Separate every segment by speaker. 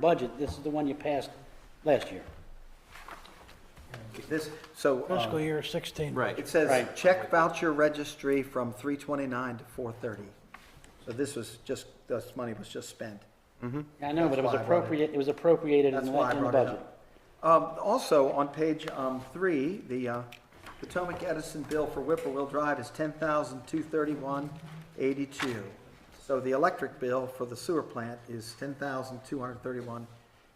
Speaker 1: budget, this is the one you passed last year.
Speaker 2: This, so,
Speaker 3: Fiscal
Speaker 2: um,
Speaker 3: year 16.
Speaker 2: it says
Speaker 1: Right.
Speaker 2: check voucher registry from three twenty-nine to four thirty. So this was just, this money was just spent.
Speaker 1: I know, but it was
Speaker 2: That's why I brought it.
Speaker 1: appropriate, it was appropriated in
Speaker 2: That's
Speaker 1: the,
Speaker 2: why I
Speaker 1: in the
Speaker 2: brought it
Speaker 1: budget.
Speaker 2: up. Um, also, on page, um, three, the, uh, Potomac Edison bill for Whipplewell Drive is ten thousand two thirty-one eighty-two. So the electric bill for the sewer plant is ten thousand two hundred thirty-one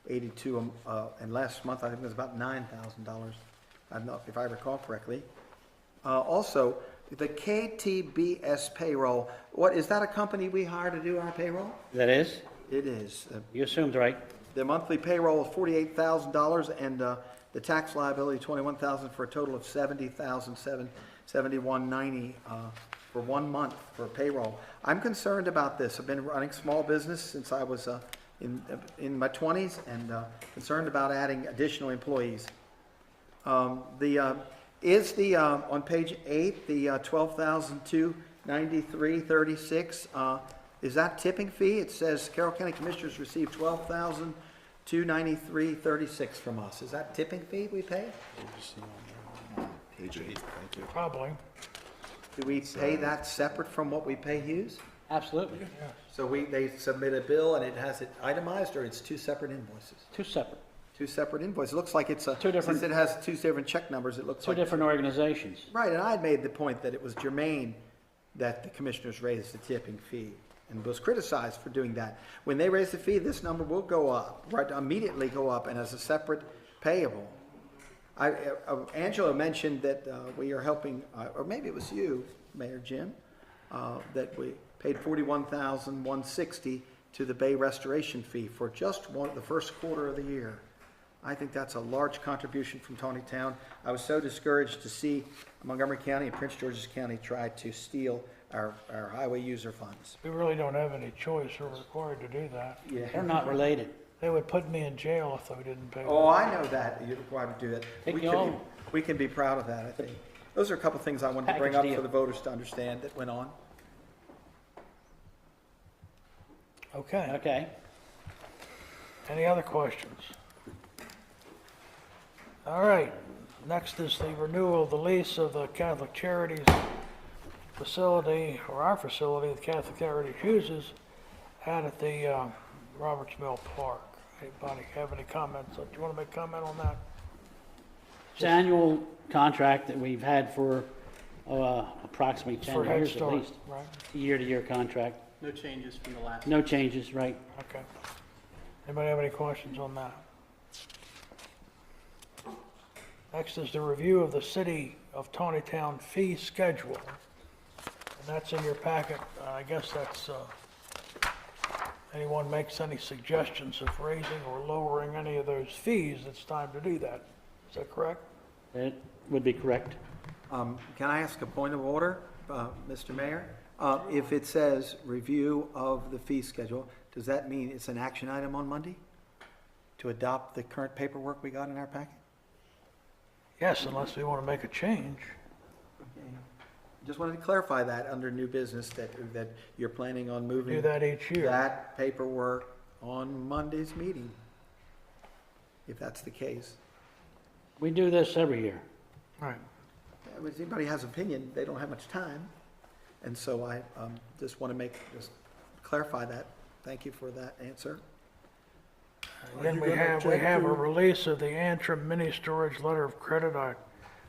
Speaker 2: eighty-two, uh, and last month, I think it was about nine thousand dollars, I'm not, if I recall correctly. Uh, also, the KTBS payroll, what, is that a company we hire to do our payroll?
Speaker 1: That is,
Speaker 2: It is, Uh,
Speaker 1: you assumed right.
Speaker 2: the monthly payroll of forty-eight thousand dollars and uh, the tax liability twenty-one thousand for a total of seventy thousand seven, seventy-one ninety uh, for one month for payroll. I'm concerned about this. I've been running small business since I was uh, in, in my twenties and uh, concerned about adding additional employees. Um, The, uh, is the, uh, on page eight, the uh, 12,293.36, uh, is that tipping fee? It says Carroll County Commissioners received 12,293.36 from us. Is that tipping fee we pay?
Speaker 4: Page eight, thank you.
Speaker 3: Probably.
Speaker 2: Do we pay that separate from what we pay Hughes?
Speaker 1: Absolutely,
Speaker 2: So we, they submit a bill and it has it itemized, or it's two separate invoices?
Speaker 1: two separate,
Speaker 2: Two separate invoices. It looks like it's a,
Speaker 1: Two different-
Speaker 2: since it has two different check numbers, it looks
Speaker 1: two
Speaker 2: like it's
Speaker 1: different organizations.
Speaker 2: Right, and I had made the point that it was germane that the commissioners raised the tipping fee and was criticized for doing that. When they raise the fee, this number will go up, right, immediately go up and as a separate payable. I, uh, Angela mentioned that uh, we are helping, uh, or maybe it was you, Mayor Jim, uh, that we paid forty-one thousand one sixty to the Bay Restoration Fee for just one, the first quarter of the year. I think that's a large contribution from Tony Town. I was so discouraged to see Montgomery County and Prince George's County try to steal our, our highway user funds.
Speaker 3: We really don't have any choice. We're required to do that.
Speaker 1: They're not related.
Speaker 3: They would put me in jail if we didn't pay.
Speaker 2: Oh, I know that, you're required to do that.
Speaker 1: Take
Speaker 2: We
Speaker 1: you
Speaker 2: can-
Speaker 1: home.
Speaker 2: We can be proud of that, I think. Those are a couple things I wanted to bring
Speaker 1: Package deal.
Speaker 2: up for the voters to understand that went on.
Speaker 3: Okay.
Speaker 1: Okay,
Speaker 3: Any other questions? All right. Next is the renewal of the lease of the Catholic Charities facility, or our facility, the Catholic Charities uses out at the uh, Roberts Mill Park. Anybody have any comments? Do you want to make a comment on that?
Speaker 1: it's an annual contract that we've had for, uh, approximately
Speaker 3: For
Speaker 1: ten
Speaker 3: Head
Speaker 1: years at
Speaker 3: Start,
Speaker 1: least.
Speaker 3: Right?
Speaker 1: Year-to-year contract,
Speaker 5: No changes from the last.
Speaker 1: no changes, right?
Speaker 3: Okay. Anybody have any questions on that? Next is the review of the City of Tawny Town fee schedule. And that's in your packet. Uh, I guess that's, uh, anyone makes any suggestions of raising or lowering any of those fees, it's time to do that. Is that correct?
Speaker 1: That would be correct.
Speaker 2: Um, Can I ask a point of order, uh, Mr. Mayor? Uh, If it says review of the fee schedule, does that mean it's an action item on Monday? To adopt the current paperwork we got in our packet?
Speaker 3: Yes, unless we want to make a change.
Speaker 2: Just wanted to clarify that under new business, that, that you're planning on moving.
Speaker 3: Do that each year.
Speaker 2: that paperwork on Monday's meeting, if that's the case.
Speaker 1: We do this every year.
Speaker 3: Right.
Speaker 2: If anybody has opinion, they don't have much time, and so I um, just want to make, just clarify that. Thank you for that answer.
Speaker 3: Then
Speaker 6: you
Speaker 3: we
Speaker 6: gonna
Speaker 3: have, we
Speaker 6: check
Speaker 3: have a
Speaker 6: your-
Speaker 3: release of the Antrim mini storage letter of credit. I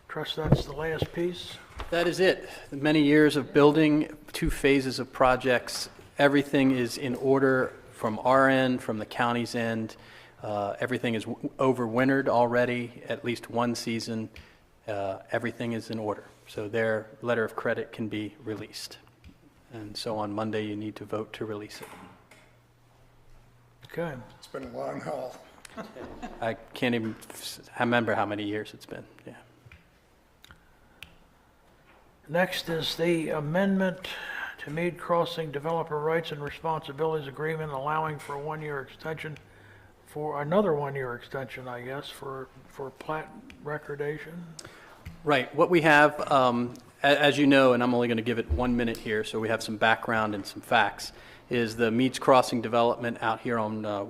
Speaker 3: trust that's the last piece.
Speaker 5: That is it. The Many years of building, two phases of projects. Everything is in order from our end, from the county's end. Uh, Everything is w- overwintered already, at least one season. Uh, Everything is in order. So their letter of credit can be released. And so on Monday, you need to vote to release it.
Speaker 3: Okay,
Speaker 6: It's been a long haul.
Speaker 5: I can't even s- remember how many years it's been, yeah.
Speaker 3: next is the amendment to Mead Crossing Developer Rights and Responsibilities Agreement allowing for a one-year extension, for another one-year extension, I guess, for, for plat recordation.
Speaker 5: Right, what we have, um, a- as you know, and I'm only going to give it one minute here, so we have some background and some facts, is the Meads Crossing development out here on uh,